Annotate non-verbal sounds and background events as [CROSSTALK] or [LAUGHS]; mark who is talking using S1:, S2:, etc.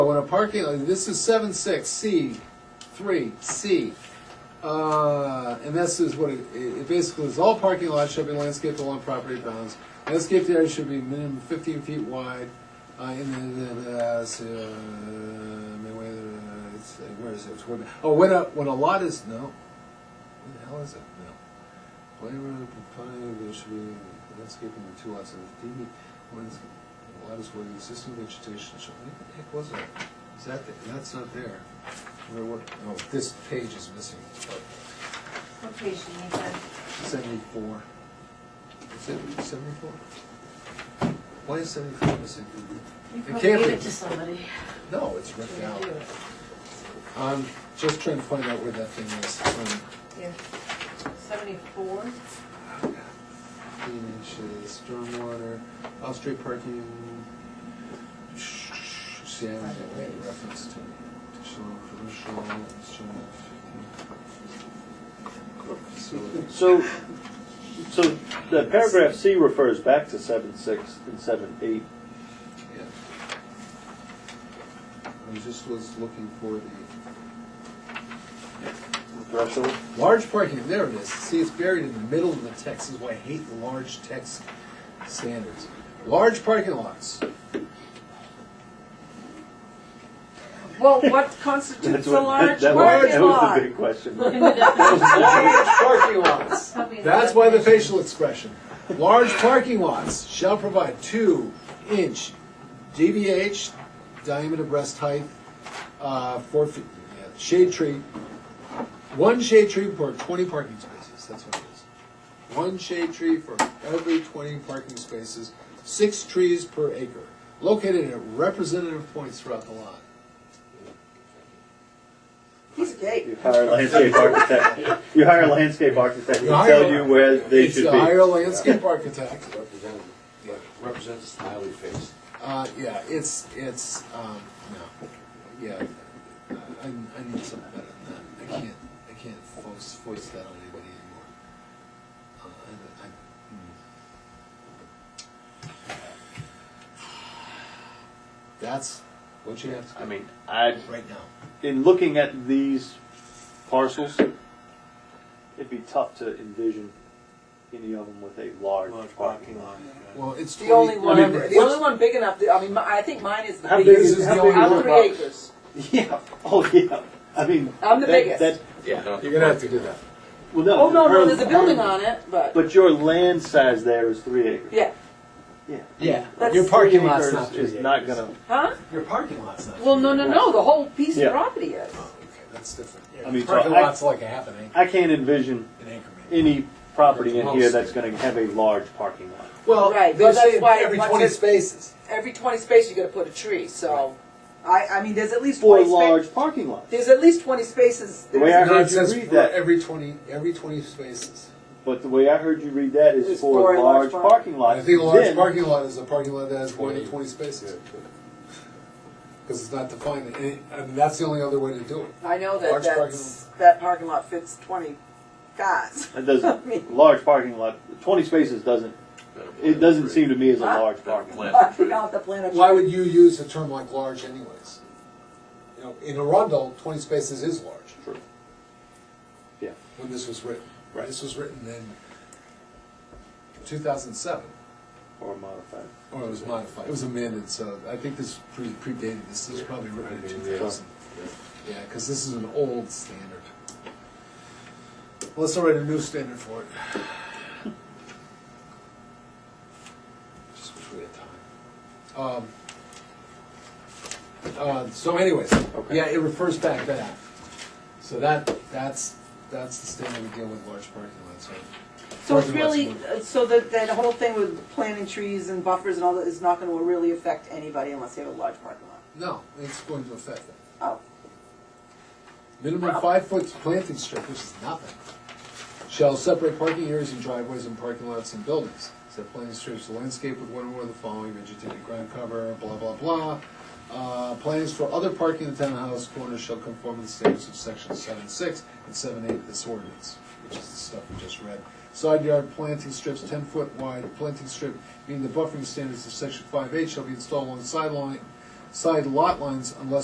S1: When a parking, uh, this is seven six, C, three, C. Uh, and this is what it, it it basically is, all parking lots shall be landscaped along property bounds. Landscaped area should be minimum fifteen feet wide, uh, in the, the, the, uh, so, uh, where, it's, uh, where is it? It's where- Oh, when a, when a lot is, no, where the hell is it? No. Whatever the planning, uh, there should be landscaping with two lots of DB, when it's, a lot is where the existing vegetation shall, what the heck was that? Is that, the- that's not there. Where, what, oh, this page is missing.
S2: What page do you need that?
S1: Seventy-four. Is it seventy-four? Why is seventy-four missing?
S2: You
S1: It
S2: probably
S1: can't
S2: gave
S1: be.
S2: it to somebody.
S1: No, it's ripped
S2: Yeah,
S1: out.
S2: do it.
S1: I'm just trying to find out where that thing is. Um,
S2: Here. Seventy-four?
S1: Eight inches, stormwater, off-street parking. See, I haven't got any reference to additional commercial, instrument.
S3: So, so the paragraph C refers back to seven six and seven eight.
S1: Yeah. I just was looking for the.
S3: Threshold?
S1: Large parking, there it is. See, it's buried in the middle of the text, this is why I hate large text standards. Large parking lots.
S4: Well, what constitutes
S3: That's
S4: a
S3: what-
S4: large
S3: that was-
S4: parking
S3: That was the
S4: lot?
S3: big question.
S4: Large parking lots.
S1: That's why the facial expression. Large parking lots shall provide two inch DBH, diameter breast height, uh, four feet, yeah, shade tree. One shade tree for twenty parking spaces, that's what it is. One shade tree for every twenty parking spaces, six trees per acre, located at representative points throughout the lot.
S4: He's gay.
S3: You hire a landscape architect, you hire a landscape architect to
S1: You hire-
S3: tell you where they
S1: It's
S3: should
S1: to Hire a
S3: be.
S1: landscape architect.
S5: Representative, yeah, represents a smiley face.
S1: Uh, yeah, it's, it's, um, no, yeah, I, I need something better than that, I can't, I can't voice, voice that on anybody anymore. Uh, I, I, hmm. That's what you have
S3: I
S1: to
S3: mean, I,
S1: do right now.
S3: in looking at these parcels, it'd be tough to envision any of them with a large parking lot.
S1: Well, it's
S4: The only
S1: twenty,
S4: one,
S3: mean,
S4: the
S3: it's-
S4: only one big enough, that- I mean, my- I think mine is the
S3: How
S4: biggest.
S3: big is
S1: this
S4: I'm-
S1: the only
S4: I'm
S1: one?
S4: three acres.
S3: [LAUGHS] Yeah, oh, yeah, I mean.
S4: I'm the
S3: that-
S4: biggest.
S3: that-
S5: Yeah.
S1: you're gonna have to do that.
S3: Well, no.
S4: Oh, no, no,
S3: her-
S4: there's a building on it, but,
S3: But your land size there is three acres.
S4: yeah,
S3: Yeah.
S1: Yeah,
S4: That's-
S1: your parking lot's not
S3: Acres is
S1: three
S3: not
S1: acres.
S3: gonna,
S4: huh?
S1: Your parking lot's not.
S4: Well,
S1: three
S4: no, no, no, the whole piece of
S3: Yeah.
S4: property is.
S1: acres. Okay, that's different.
S3: I mean, so
S1: Parking
S3: I-
S1: lot's like a half an acre,
S3: I can't envision
S1: an acre maybe.
S3: any property in here that's gonna have a large parking lot.
S1: Well,
S4: Right,
S1: they're
S4: well, that's
S1: saying
S4: why
S1: every
S4: once
S1: twenty
S4: it-
S1: spaces.
S4: Every twenty space, you gotta put a tree, so, I, I mean, there's at least
S3: Four
S4: twenty spa-
S3: large parking lots.
S4: There's at least twenty spaces.
S3: The way I
S4: There's-
S1: No,
S3: heard
S1: it
S3: you
S1: says
S3: read
S1: for
S3: that,
S1: every twenty, every twenty spaces.
S3: but the way I heard you read that is
S4: It's
S3: four large parking lots.
S1: I think a large
S3: Then-
S1: parking lot is a parking lot that has more than
S5: Twenty.
S1: twenty spaces. Because it's not defined, and, it- I mean, that's the only other way to do it.
S4: I know that
S1: Large parking
S4: that's, that parking lot fits twenty
S1: [LAUGHS]
S4: cars. [LAUGHS]
S3: That
S4: I mean-
S3: doesn't, large parking lot, twenty spaces doesn't, it doesn't seem to me as a
S4: Huh?
S3: large parking lot.
S4: I'll have to plant a tree.
S1: Why would you use a term like large anyways? You know, in Arundel, twenty spaces is large,
S3: True. Yeah.
S1: when this was written.
S3: Right.
S1: This was written in two thousand seven,
S3: Or modified.
S1: or it was modified, it was amended, so I think this pre- predated, this was probably written in two thousand. Yeah, because this is an old standard. Let's write a new standard for it. Just wish we had time. Um, uh, so anyways,
S3: Okay.
S1: yeah, it refers back to that. So that, that's, that's the standard we deal with large parking lots, right?
S4: So
S1: Parking
S4: it's
S1: lots
S4: really,
S1: would-
S4: uh, so that, that whole thing with planting trees and buffers and all that is not gonna really affect anybody unless they have a large parking lot.
S1: No, it's going to affect that.
S4: Oh,
S1: Minimum five foot planting strip, which is nothing, shall separate parking areas and driveways and parking lots and buildings. Set planting strips to landscape with one or more of the following vegetated ground cover, blah, blah, blah. Uh, plans for other parking in the townhouse corners shall conform to the standards of section seven six and seven eight of this ordinance, which is the stuff we just read. Side yard planting strips ten foot wide, planting strip meaning the buffering standards of section five eight shall be installed along the sideline side lot lines unless